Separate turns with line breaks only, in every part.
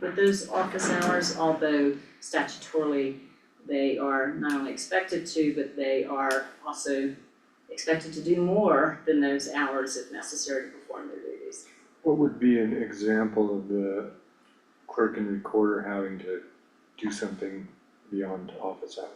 but those office hours, although statutorily they are not only expected to, but they are also expected to do more than those hours if necessary to perform their duties.
What would be an example of the clerk and recorder having to do something beyond office hours?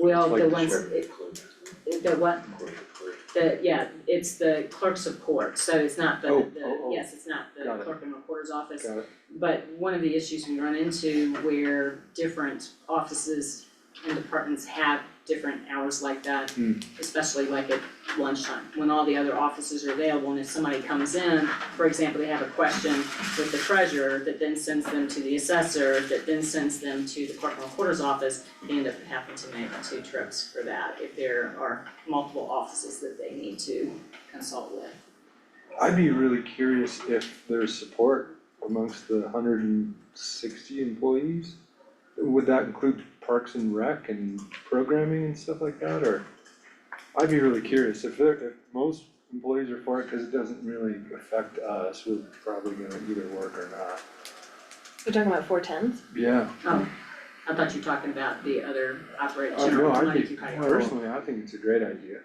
Well,
Like
the ones,
sheriff
it-
clerk,
the what,
clerk, clerk.
The, yeah, it's the clerks of court, so it's not the,
Oh,
the,
oh, oh.
yes, it's not the
Got it.
clerk and recorder's office.
Got it,
But one of the issues we run into where different offices and departments have different hours like that,
Hmm.
especially like at lunchtime, when all the other offices are available, and if somebody comes in, for example, they have a question with the treasurer that then sends them to the assessor, that then sends them to the clerk and recorder's office, they end up having to make two trips for that if there are multiple offices that they need to consult with.
I'd be really curious if there's support amongst the hundred and sixty employees? Would that include parks and rec and programming and stuff like that, or? I'd be really curious, if there, if most employees are for it, cause it doesn't really affect us, we're probably gonna either work or not.
We're talking about four tens?
Yeah,
Oh, I thought you were talking about the other operate,
Oh,
general
no, I
non-occupied.
think, personally, I think it's a great idea.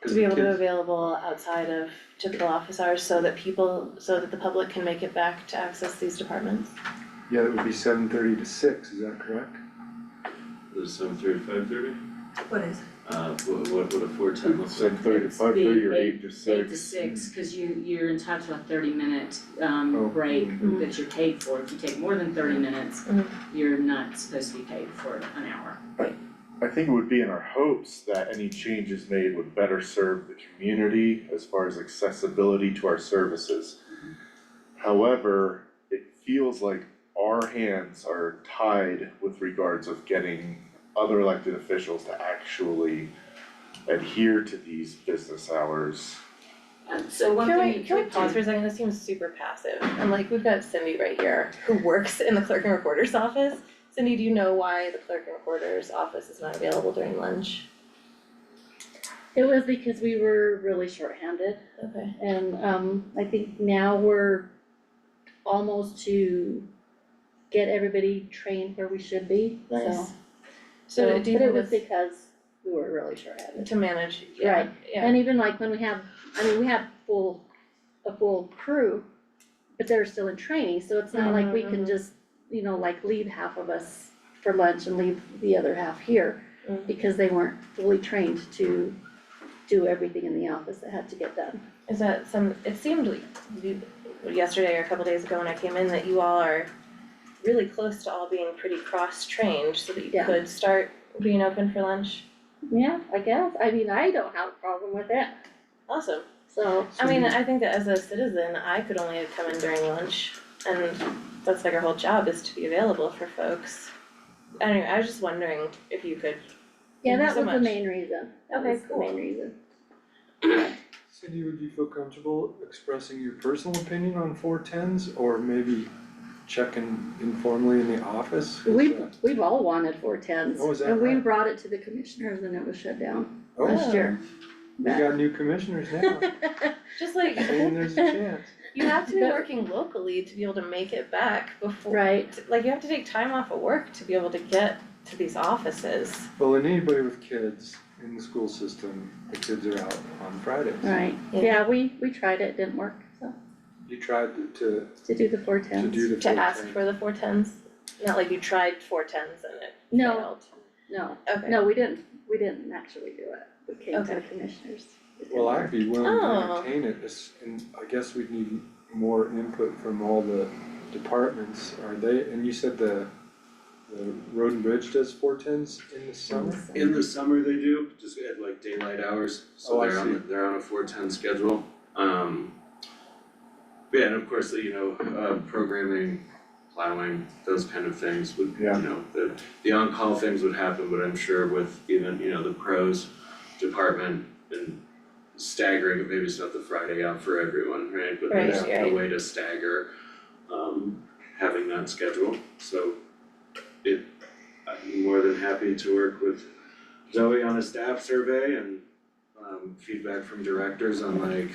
'Cause
To be
the
able to be
kids-
available outside of typical office hours so that people, so that the public can make it back to access these departments?
Yeah, it would be seven thirty to six, is that correct?
Is it seven thirty, five thirty?
What is?
Uh, what, what, what a four ten looks like.
Seven thirty to
It's
five thirty
the
or eight to six.
Eight to six, cause you, you're entitled to a thirty minute, um,
Oh.
break
Mhm.
that you're paid for. If you take more than thirty minutes,
Mhm.
you're not supposed to be paid for an hour.
I think it would be in our hopes that any changes made would better serve the community as far as accessibility to our services. However, it feels like our hands are tied with regards of getting other elected officials to actually adhere to these business hours.
Um, so one
Can
thing
we,
you
can we
could
pause for
do,
a second? This seems super passive. And like, we've got Cindy right here who works in the clerk and recorder's office. Cindy, do you know why the clerk and recorder's office is not available during lunch?
It was because we were really shorthanded
Okay.
and um I think now we're almost to get everybody trained where we should be, so.
Nice.
So,
So
but
do you
it
think
was
it's
because we were really shorthanded.
to manage, yeah,
Right.
yeah,
And even like when we have, I mean, we have full, a full crew, but they're still in training, so it's not like we
Mhm,
can
mhm.
just, you know, like leave half of us for lunch and leave the other half here.
Mm.
Because they weren't fully trained to do everything in the office that had to get done.
Is that some, it seemed like you- yesterday or a couple days ago when I came in that you all are really close to all being pretty cross-trained so that you
Yeah.
could start being open for lunch.
Yeah, I guess, I mean, I don't have a problem with it,
Awesome.
so,
I mean, uh, I think that as a citizen, I could only come in during lunch and that's like our whole job is to be available for folks. Anyway, I was just wondering if you could,
yeah,
Thank you
that
so
was the
much.
main reason, that
Okay,
was the
cool.
main reason.
Cindy, would you feel comfortable expressing your personal opinion on four tens or maybe checking informally in the office? Is
We've,
that-
we've all wanted four tens,
Oh, is that
and we
right?
brought it to the commissioners and it was shut down
Oh,
last year.
we got new commissioners now,
just like,
saying there's a chance.
you have to be
But-
working locally to be able to make it back before
Right,
t- like you have to take time off of work to be able to get to these offices.
Well, and anybody with kids in the school system, the kids are out on Fridays.
right,
Yeah.
yeah, we, we tried it, didn't work, so,
You tried to,
to do the four
to, to
tens.
do the four
To
tens.
ask for the four tens, not like you tried four tens and it
No,
failed.
no,
Okay.
no, we didn't, we didn't actually do it, we came to the
Okay.
commissioners. It
Well,
didn't
I'd be willing
Oh.
to entertain it, it's- and I guess we'd need more input from all the departments, are they, and you said the the road and bridge does four tens in the
work,
summer?
so.
In the summer they do, just at like daylight hours, so
Oh, I
they're on,
see.
the- they're on a four ten schedule, um. Yeah, and of course, you know, uh, programming, plowing, those kind of things would, you
Yeah.
know, the, the on-call things would happen, but I'm sure with even, you know, the pros department and staggering, maybe it's not the Friday out for everyone, right, but there's
Right,
a
right.
way to stagger, um, having that schedule, so it, I'm more than happy to work with Zoe on a staff survey and um feedback from directors on like,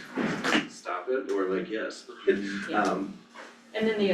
stop it, or like, yes.
Yeah.
Um,
and then the